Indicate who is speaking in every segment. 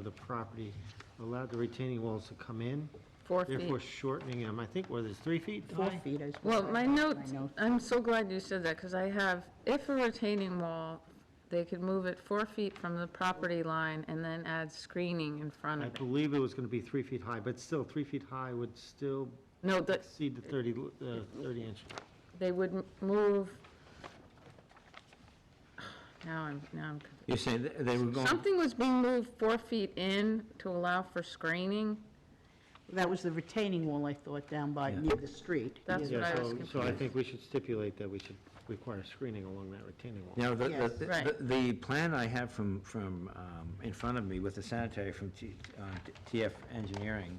Speaker 1: the property allowed the retaining walls to come in,
Speaker 2: Four feet.
Speaker 1: therefore shortening them, I think, what is it, three feet
Speaker 3: Four
Speaker 1: high?
Speaker 3: feet is.
Speaker 2: Well,
Speaker 3: what I
Speaker 2: my
Speaker 3: have,
Speaker 2: notes,
Speaker 3: notes.
Speaker 2: I'm so glad you said that, because I have, if a retaining wall, they could move it four feet from the property line and then add screening in front
Speaker 1: I
Speaker 2: of it.
Speaker 1: believe it was going to be three feet high, but still, three feet high would still
Speaker 2: No, that,
Speaker 1: exceed the 30, l- uh, 30 inch.
Speaker 2: they would m- move. Now I'm, now I'm, conf-
Speaker 4: You're saying th- they were going,
Speaker 2: something was being moved four feet in to allow for screening.
Speaker 3: That was the retaining wall, I thought, down by,
Speaker 4: Yeah.
Speaker 3: near the street.
Speaker 2: That's
Speaker 3: near
Speaker 1: Yeah,
Speaker 2: what I was
Speaker 1: so, so I
Speaker 2: confused.
Speaker 1: think we should stipulate that we should require screening along that retaining wall.
Speaker 4: now, the, the-
Speaker 3: Yes.
Speaker 4: the,
Speaker 2: Right.
Speaker 4: the the plan I have from, from, um, in front of me with the sanitary from T- uh, T- TF Engineering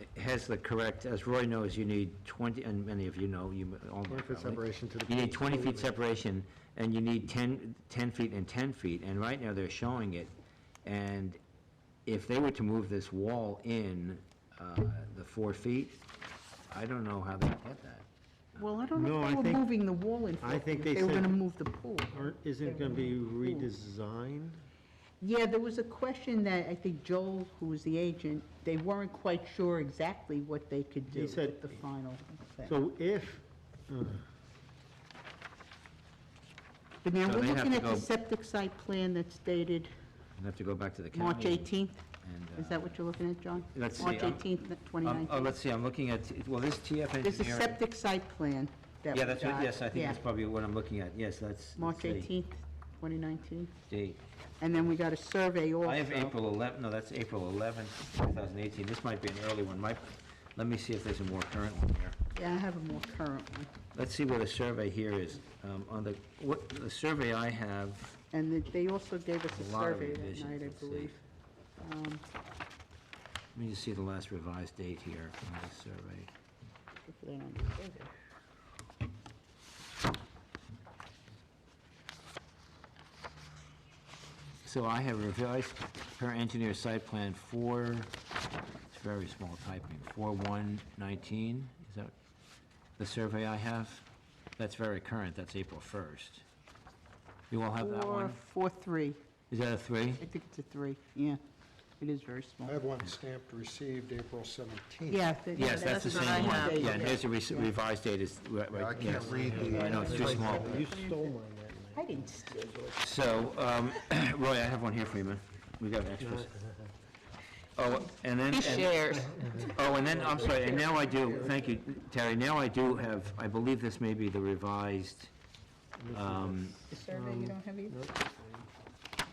Speaker 4: it has the correct, as Roy knows, you need 20, and many of you know, you m- all know
Speaker 1: 20 foot
Speaker 4: probably.
Speaker 1: separation to the
Speaker 4: You need
Speaker 1: pool.
Speaker 4: 20 feet separation, and you need 10, 10 feet and 10 feet, and right now they're showing it. And if they were to move this wall in uh, the four feet, I don't know how they get that.
Speaker 3: Well, I don't
Speaker 1: No,
Speaker 3: know
Speaker 1: I
Speaker 3: if they
Speaker 1: think-
Speaker 3: were moving the wall in
Speaker 1: I
Speaker 3: front,
Speaker 1: think
Speaker 3: if
Speaker 1: they
Speaker 3: they were
Speaker 1: said-
Speaker 3: gonna move the pool.
Speaker 1: Aren't- Isn't it going to be redesigned?
Speaker 3: Yeah, there was a question that I think Joel, who was the agent, they weren't quite sure exactly what they could
Speaker 1: He
Speaker 3: do
Speaker 1: said-
Speaker 3: with the final thing.
Speaker 1: So if, uh,
Speaker 3: But now,
Speaker 4: So
Speaker 3: we're
Speaker 4: they have
Speaker 3: looking
Speaker 4: to
Speaker 3: at the
Speaker 4: go-
Speaker 3: septic site plan that's dated
Speaker 4: I'd have to go back to the county.
Speaker 3: March 18th.
Speaker 4: and,
Speaker 3: Is that
Speaker 4: uh,
Speaker 3: what you're looking at, John?
Speaker 4: Let's see,
Speaker 3: March
Speaker 4: um,
Speaker 3: 18th,
Speaker 4: Um, Oh,
Speaker 3: 2019.
Speaker 4: let's see, I'm looking at, well, this TF engineering.
Speaker 3: There's a septic site plan that we
Speaker 4: Yeah,
Speaker 3: got.
Speaker 4: that's, what- yes, I think
Speaker 3: Yeah,
Speaker 4: that's probably what I'm looking at, yes, that's.
Speaker 3: March
Speaker 4: that's the
Speaker 3: 18th, 2019.
Speaker 4: Date.
Speaker 3: And then we got a survey also.
Speaker 4: I have April 11, no, that's April 11, 2018, this might be an early one, might, let me see if there's a more current one here.
Speaker 3: Yeah, I have a more current one.
Speaker 4: Let's see where the survey here is, Um, on the, what, the survey I have,
Speaker 3: And they- they also gave us a
Speaker 4: A lot of
Speaker 3: survey that
Speaker 4: revisions,
Speaker 3: night, I
Speaker 4: let's see.
Speaker 3: believe. Um,
Speaker 4: let me just see the last revised date here on this survey.
Speaker 3: if they're on the survey.
Speaker 4: So I have revised per engineer site plan four, it's very small typing, four one nineteen, is that the survey I have? That's very current, that's April first. You all have that
Speaker 3: Four,
Speaker 4: one?
Speaker 3: four, three.
Speaker 4: Is that a three?
Speaker 3: I think it's a three, yeah. It is very small.
Speaker 5: I have one stamped received April 17th.
Speaker 3: Oh, Yeah. they-
Speaker 4: Yes, that's the
Speaker 2: That's what I
Speaker 4: same
Speaker 2: have.
Speaker 4: one. Yeah, and here's the re- revised date is, right,
Speaker 5: I
Speaker 4: right,
Speaker 5: can't
Speaker 4: yes.
Speaker 5: read the-
Speaker 4: I know, it's too small.
Speaker 1: you stole mine that night.
Speaker 3: I didn't steal yours.
Speaker 4: So, um, Roy, I have one here for you, man. We got extras. Oh, and then.
Speaker 2: He
Speaker 4: and-
Speaker 2: shares.
Speaker 4: Oh, and then, I'm sorry, and now I do, thank you, Terry, now I do have, I believe this may be the revised, um,
Speaker 3: The survey you don't have either?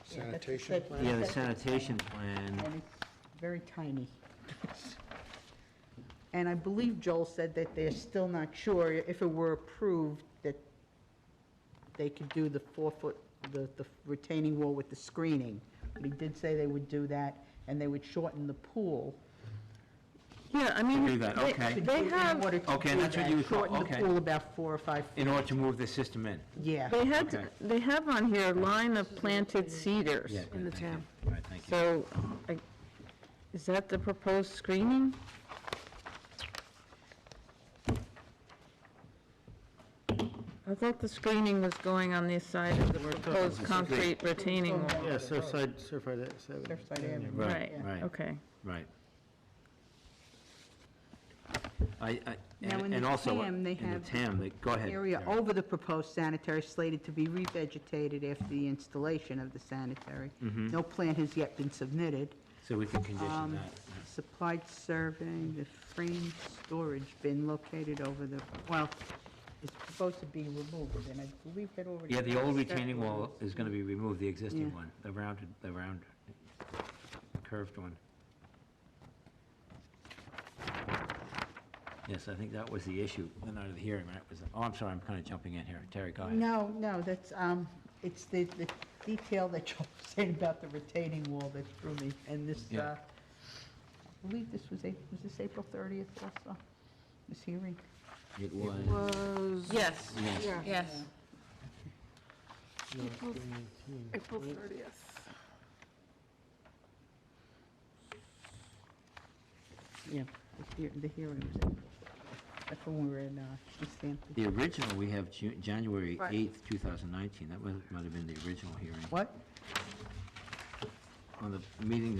Speaker 5: Sanitation plan.
Speaker 4: yeah, the sanitation plan.
Speaker 3: And it's very tiny. And I believe Joel said that they're still not sure if it were approved that they could do the four-foot, the the retaining wall with the screening. But he did say they would do that, and they would shorten the pool.
Speaker 2: Yeah, I mean.
Speaker 4: do that,
Speaker 2: they-
Speaker 4: okay.
Speaker 2: They
Speaker 3: In
Speaker 2: have,
Speaker 3: order to
Speaker 4: Okay,
Speaker 3: do
Speaker 4: that's what
Speaker 3: that,
Speaker 4: you would call-
Speaker 3: Shorten the
Speaker 4: okay.
Speaker 3: pool about four or five, feet.
Speaker 4: In order to move the system in.
Speaker 3: yeah.
Speaker 2: they had,
Speaker 4: Okay.
Speaker 2: they have on here a line of planted cedars.
Speaker 4: Yeah, good, thank you. All right, thank you.
Speaker 2: So, I- is that the proposed screening? I thought the screening was going on this side of the proposed concrete retaining wall.
Speaker 1: Yeah, Surfside, Surfside, uh, that- so-
Speaker 3: Surfside Avenue.
Speaker 2: Right,
Speaker 3: yeah.
Speaker 4: Right,
Speaker 2: okay.
Speaker 4: right. I, I,
Speaker 3: Now, in
Speaker 4: and
Speaker 3: the
Speaker 4: and also,
Speaker 3: TAM,
Speaker 4: in
Speaker 3: they
Speaker 4: the
Speaker 3: have
Speaker 4: TAM, they- go ahead.
Speaker 3: Area
Speaker 4: Terry.
Speaker 3: over the proposed sanitary slated to be revegetated after the installation of the sanitary.
Speaker 4: Mm-hmm.
Speaker 3: No plan has yet been submitted.
Speaker 4: So we can
Speaker 3: Um,
Speaker 4: condition that.
Speaker 3: Supplied survey, the frame storage bin located over the, well, it's supposed to be removed, and I believe that already.
Speaker 4: Yeah, the old retaining wall is gonna be removed, the existing
Speaker 3: Yeah.
Speaker 4: one, the rounded, the round, curved one. Yes, I think that was the issue, the night of the hearing, right, was, oh, I'm sorry, I'm kinda jumping in here, Terry, go ahead.
Speaker 3: No, no, that's, um, it's the, the detail that you said about the retaining wall that threw me, and this,
Speaker 4: Yeah.
Speaker 3: uh, I believe this was, Ap- was this April 30th also, this hearing?
Speaker 4: It was,
Speaker 2: Yes,
Speaker 4: yes,
Speaker 2: yes.
Speaker 6: April 30th.
Speaker 3: Yeah, the hear- the hearing was April. That's when we were in, uh, East Hampton.
Speaker 4: the original, we have Ju- January
Speaker 6: Right.
Speaker 4: eighth, two thousand nineteen, that was, might have been the original hearing.
Speaker 3: What?
Speaker 4: Uh, on the meeting